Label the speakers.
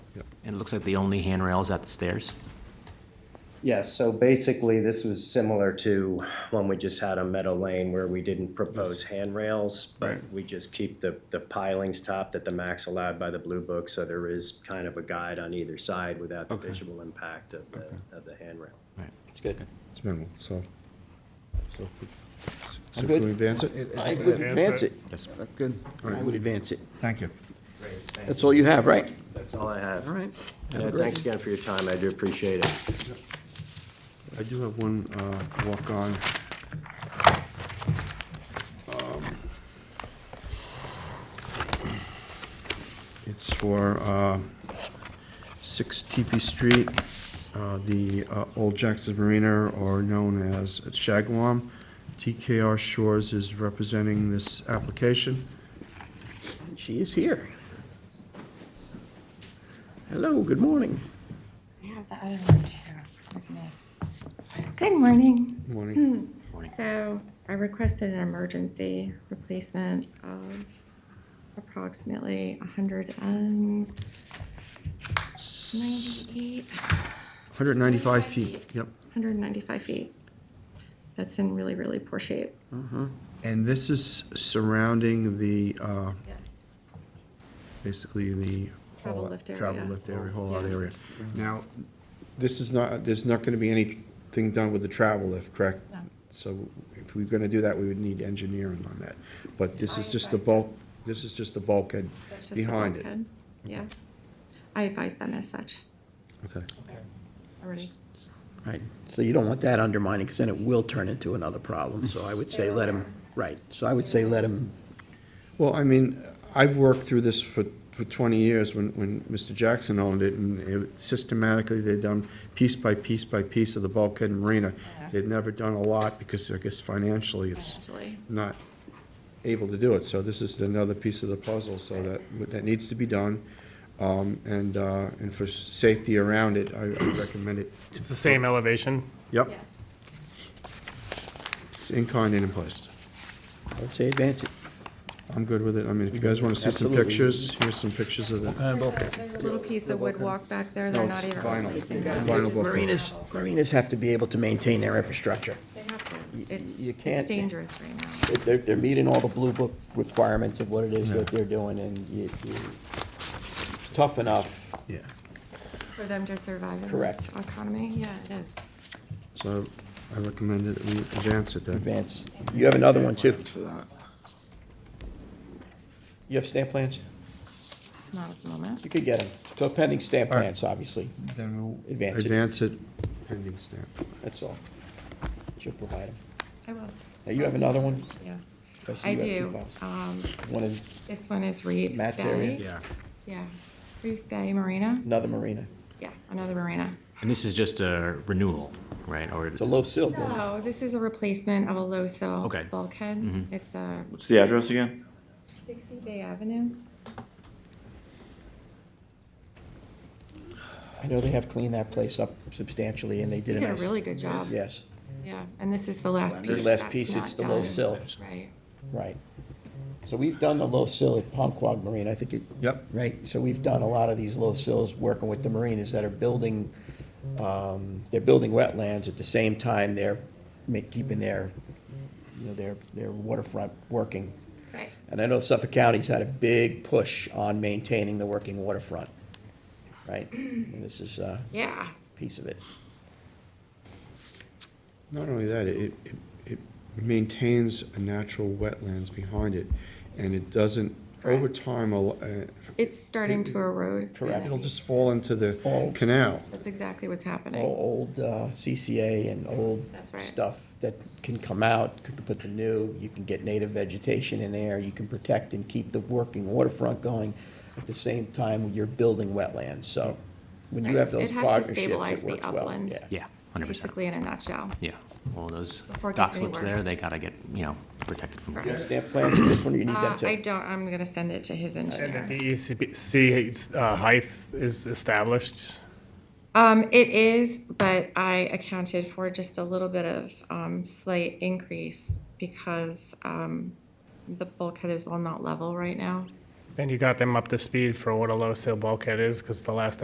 Speaker 1: And it looks like the only handrail is at the stairs.
Speaker 2: Yes, so basically, this was similar to when we just had on Meadow Lane where we didn't propose handrails, but we just keep the, the pilings topped at the max allowed by the Blue Book, so there is kind of a guide on either side without the visual impact of the, of the handrail.
Speaker 3: It's good.
Speaker 4: It's minimal, so. so if we- So
Speaker 3: I'm
Speaker 4: if
Speaker 3: good.
Speaker 4: we advance it?
Speaker 3: I would advance
Speaker 5: advance
Speaker 3: it.
Speaker 5: it.
Speaker 3: That's good. I would advance it.
Speaker 4: Thank you.
Speaker 3: That's all you have, right?
Speaker 2: That's all I have.
Speaker 3: All right.
Speaker 2: Yeah, Thanks again for your time, I do appreciate it.
Speaker 4: I do have one uh, walk-on. Um, It's for uh, 6 TP Street, uh, the uh, Old Jackson Marina, or known as Shagwam. TKR Shores is representing this application.
Speaker 3: She is here. Hello, good morning.
Speaker 6: I have the other one too. with me. Good morning.
Speaker 3: Hmm.
Speaker 4: Morning.
Speaker 6: So I requested an emergency replacement of approximately hundred and ninety-eight,
Speaker 4: 195 feet, yep.
Speaker 6: hundred and ninety-five feet. That's in really, really poor shape.
Speaker 4: And this is surrounding the, uh,
Speaker 6: Yes.
Speaker 4: basically the.
Speaker 6: Travel
Speaker 4: whole-
Speaker 6: lift area.
Speaker 4: Travel lift area, whole lot
Speaker 6: Yeah.
Speaker 4: area. Now, this is not, there's not gonna be anything done with the travel lift, correct?
Speaker 6: No.
Speaker 4: So if we're gonna do that, we would need engineering on that. But this is
Speaker 6: I
Speaker 4: just the
Speaker 6: advise
Speaker 4: bulk, this is just the bulkhead
Speaker 6: That's just the
Speaker 4: behind it.
Speaker 6: bulkhead. Yeah. I advise them as such
Speaker 4: Okay.
Speaker 6: already.
Speaker 3: Right, so you don't want that undermining, because then it will turn into another problem, so I would say let him, right, so I would say let him,
Speaker 4: Well, I mean, I've worked through this for, for twenty years when, when Mr. Jackson owned it, and it- systematically they've done piece by piece by piece of the bulkhead and marina. They've never done a lot, because I guess financially, it's
Speaker 6: Actually,
Speaker 4: not able to do it, so this is another piece of the puzzle, so that, that needs to be done. Um, and, uh, and for s- safety around it, I I recommend it.
Speaker 5: It's the same elevation.
Speaker 4: Yep,
Speaker 6: yes.
Speaker 4: it's in kind and in place.
Speaker 3: I would say advance it.
Speaker 4: I'm good with it, I mean, if you guys wanna see some
Speaker 3: Absolutely.
Speaker 4: pictures, here's some pictures of it.
Speaker 6: There's a- There's a little piece of wood walk back there. They're
Speaker 4: No,
Speaker 6: not
Speaker 4: it's
Speaker 6: even
Speaker 4: vinyl.
Speaker 6: replacing that.
Speaker 4: Vinyl bulkhead.
Speaker 3: Marinas, marinas have to be able to maintain their infrastructure.
Speaker 6: They have to. It's,
Speaker 3: you
Speaker 6: it's
Speaker 3: can't-
Speaker 6: dangerous right now.
Speaker 3: They're, they're meeting all the blue book requirements of what it is that they're doing, and you, you, it's tough enough.
Speaker 4: Yeah.
Speaker 6: For them to survive in this
Speaker 3: Correct.
Speaker 6: economy, yeah, it is.
Speaker 4: So I recommend that we advance it then.
Speaker 3: Advance. You have another one, too. You have stamp plans?
Speaker 6: Not at the moment.
Speaker 3: You could get them. So pending stamp plans, obviously,
Speaker 4: Then we'll
Speaker 3: Advance it.
Speaker 4: advance it pending stamp.
Speaker 3: that's all. She'll provide them.
Speaker 6: I will,
Speaker 3: Now, you have another one?
Speaker 6: yeah.
Speaker 3: see
Speaker 6: I
Speaker 3: you have two
Speaker 6: do.
Speaker 3: files.
Speaker 6: Um,
Speaker 3: One in
Speaker 6: this one is Reeves
Speaker 3: Matt's area?
Speaker 6: Bay. Yeah. Reeves Bay Marina.
Speaker 3: another marina.
Speaker 6: Yeah, another marina.
Speaker 1: And this is just a renewal, right? Or
Speaker 3: It's a low sill. one.
Speaker 6: Oh, this is a replacement of a low sill
Speaker 1: Okay.
Speaker 6: bulkhead. It's a
Speaker 7: What's the address again?
Speaker 6: sixty Bay Avenue.
Speaker 3: I know they have cleaned that place up substantially, and they did
Speaker 6: They
Speaker 3: a
Speaker 6: did a
Speaker 3: nice.
Speaker 6: really good job.
Speaker 3: Yes,
Speaker 6: Yeah, and this is the last
Speaker 3: Their
Speaker 6: piece
Speaker 3: last
Speaker 6: that's
Speaker 3: piece,
Speaker 6: not
Speaker 3: it's the low
Speaker 6: done.
Speaker 3: sill.
Speaker 6: Right.
Speaker 3: right. So we've done the low sill at Palmquag Marina, I think it.
Speaker 4: Yep.
Speaker 3: Right, so we've done a lot of these low sills, working with the marinas that are building, um, they're building wetlands at the same time they're ma- keeping their, you know, their, their waterfront working.
Speaker 6: Right.
Speaker 3: And I know Suffolk County's had a big push on maintaining the working waterfront, right? And this is a
Speaker 6: Yeah.
Speaker 3: piece of it.
Speaker 4: Not only that, it, it- it maintains a natural wetlands behind it, and it doesn't, over time, al- uh,
Speaker 6: It's starting to erode.
Speaker 3: Correct.
Speaker 4: it'll just fall into the
Speaker 3: All-
Speaker 4: canal.
Speaker 6: That's exactly what's happening.
Speaker 3: All old uh, CCA and old
Speaker 6: That's right.
Speaker 3: stuff that can come out, you can put the new, you can get native vegetation in there, you can protect and keep the working waterfront going. At the same time, you're building wetlands, so when you
Speaker 6: Right.
Speaker 3: have those
Speaker 6: It has to
Speaker 3: partnerships,
Speaker 6: stabilize
Speaker 3: it
Speaker 6: the
Speaker 3: works well,
Speaker 6: upland.
Speaker 3: yeah.
Speaker 1: Yeah, hundred percent.
Speaker 6: Basically, in a nutshell.
Speaker 1: Yeah, all those
Speaker 6: Before it
Speaker 1: dock
Speaker 6: gets any
Speaker 1: slips
Speaker 6: worse.
Speaker 1: there, they gotta get, you know, protected from.
Speaker 6: Correct.
Speaker 3: Stamp plans for this one, or you need
Speaker 6: Uh,
Speaker 3: them
Speaker 6: I
Speaker 3: too?
Speaker 6: don't, I'm gonna send it to his
Speaker 5: And
Speaker 6: engineer.
Speaker 5: the E DEC uh, height is established.
Speaker 6: Um, it is, but I accounted for just a little bit of, um, slight increase because, um, the bulkhead is all not level right now.
Speaker 5: And you got them up to speed for what a low sill bulkhead is, because the last